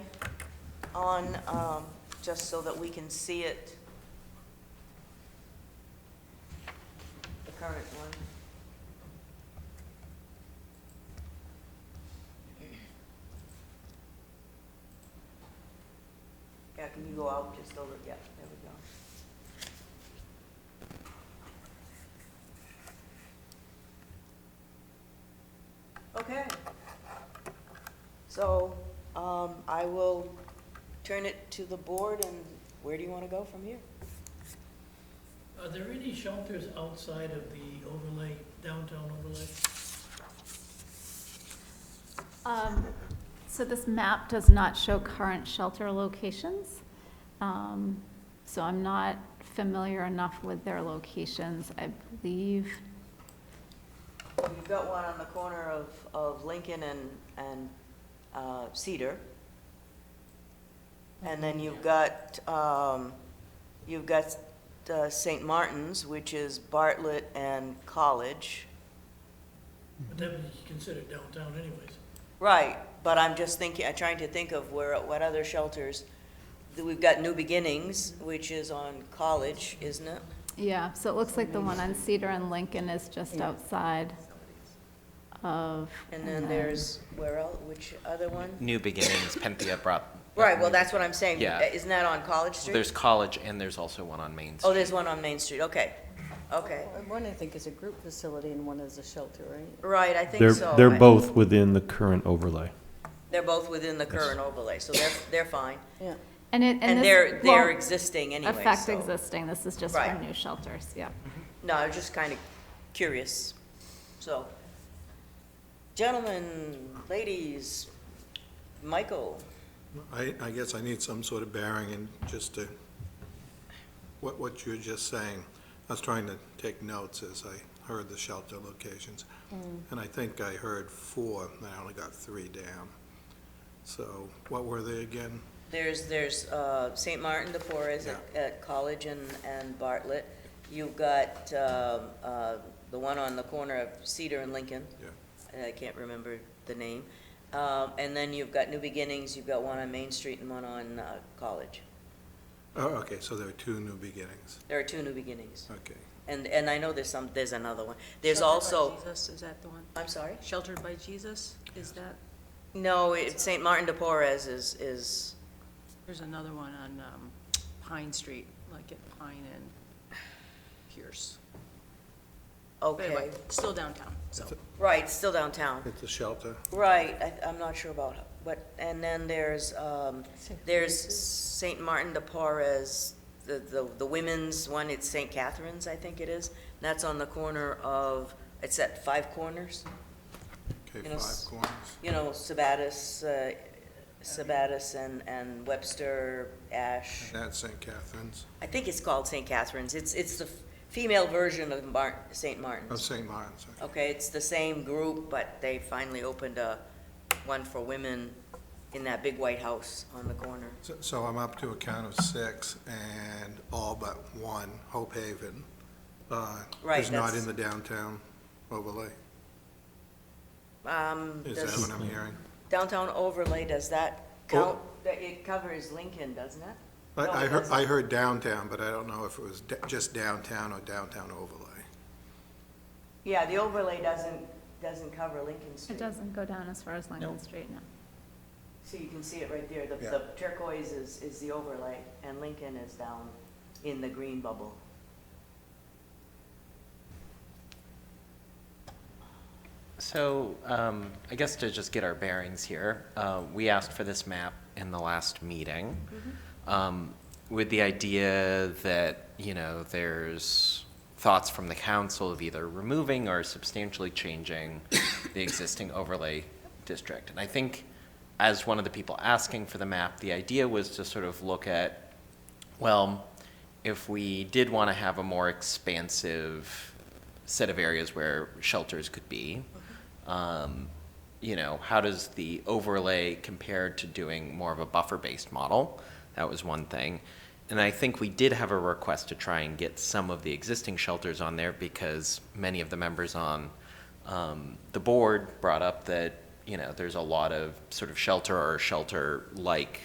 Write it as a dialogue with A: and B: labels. A: on, um, just so that we can see it? The current one? Yeah, can you go out just over, yeah, there we go. Okay. So, um, I will turn it to the board, and where do you want to go from here?
B: Are there any shelters outside of the overlay, downtown overlay?
C: Um, So this map does not show current shelter locations, Um, so I'm not familiar enough with their locations. I believe,
A: You've got one on the corner of, of Lincoln and, and uh, Cedar. And then you've got, um, you've got uh, St. Martin's, which is Bartlett and College.
B: But that would be considered downtown anyways.
A: Right, but I'm just thinking, I'm trying to think of where, what other shelters. We've got New Beginnings, which is on College, isn't it?
C: yeah, so it looks like the one on Cedar and Lincoln is just outside of.
A: And then there's, where else, which other one?
D: New beginnings, Penthea brought.
A: Right, well, that's what I'm saying. Uh,
D: Yeah.
A: Isn't that on College Street?
D: There's college and there's also one on Main
A: Oh,
D: Street.
A: there's one on Main Street, okay, okay.
E: Well, One, I think, is a group facility and one is a shelter, right?
A: Right, I think
F: They're,
A: so.
F: they're
A: I-
F: both within the current overlay.
A: They're both within the current overlay, so they're, they're fine.
E: Yeah.
C: And it, and
A: And
C: this.
A: they're, they're
C: won't
A: existing anyway,
C: Affect
A: so-
C: existing, this is just for
A: Right.
C: new shelters, yeah.
A: No, I was just kind of curious, so. Gentlemen, ladies, Michael,
G: I, I guess I need some sort of bearing and just to, what, what you were just saying. I was trying to take notes as I heard the shelter locations. And I think I heard four, and I only got three down. So what were they again?
A: there's, there's, uh, St. Martin, the Porres at, at College and, and Bartlett. You've got, um uh, the one on the corner of Cedar and Lincoln.
G: Yeah.
A: and I can't remember the name. Um, and then you've got New Beginnings, you've got one on Main Street and one on, uh, College.
G: Oh, okay, so there were two new beginnings.
A: There are two New Beginnings.
G: Okay.
A: And, and I know there's some, there's another one. There's also,
E: Jesus, is that the one?
A: I'm sorry?
E: Sheltered by Jesus, is that,
A: No, it, St. Martin de Porres is, is,
E: there's another one on um, Pine Street, like at Pine and Pierce. But anyway,
A: okay.
E: still downtown, so.
A: Right, still downtown.
G: It's a shelter.
A: Right, I, I'm not sure about, but, and then there's, um, there's St. Martin de Porres, the, the, the women's one, it's St. Catherine's, I think it is. And That's on the corner of, it's at Five Corners.
G: Okay,
A: Yes.
G: five corners.
A: you know, Sabatis, uh, Sabatis and, and Webster, Ash.
G: That's St. Catherine's,
A: I think it's called St. Catherine's. It's, it's the f- female version of Mar- St.
G: of
A: Martin's.
G: St. Martin's. okay.
A: Okay, it's the same group, but they finally opened a, one for women in that big white house on the corner.
G: So- So I'm up to a count of six, and all but one, Hope Haven, uh,
A: Right,
G: is not
A: that's-
G: in the downtown overlay.
A: Um,
G: Is that
A: does-
G: what I'm hearing?
A: downtown overlay, does that
G: Oh.
A: count? That It covers Lincoln, doesn't it?
G: I,
A: No,
G: I
A: it
G: heard,
A: doesn't.
G: I heard downtown, but I don't know if it was da- just downtown or downtown overlay.
A: Yeah, the overlay doesn't, doesn't cover Lincoln Street.
C: It doesn't go down as far as Lincoln Street, no.
A: So you can see it right there, the,
G: Yeah.
A: the turquoise is, is the overlay, and Lincoln is down in the green bubble.
D: So um, I guess to just get our bearings here, uh, we asked for this map in the last meeting um, with the idea that, you know, there's thoughts from the council of either removing or substantially changing the existing overlay district. And I think as one of the people asking for the map, the idea was to sort of look at, well, if we did want to have a more expansive set of areas where shelters could be, um, you know, how does the overlay compare to doing more of a buffer-based model? That was one thing. And I think we did have a request to try and get some of the existing shelters on there because many of the members on um, the board brought up that, you know, there's a lot of sort of shelter or shelter-like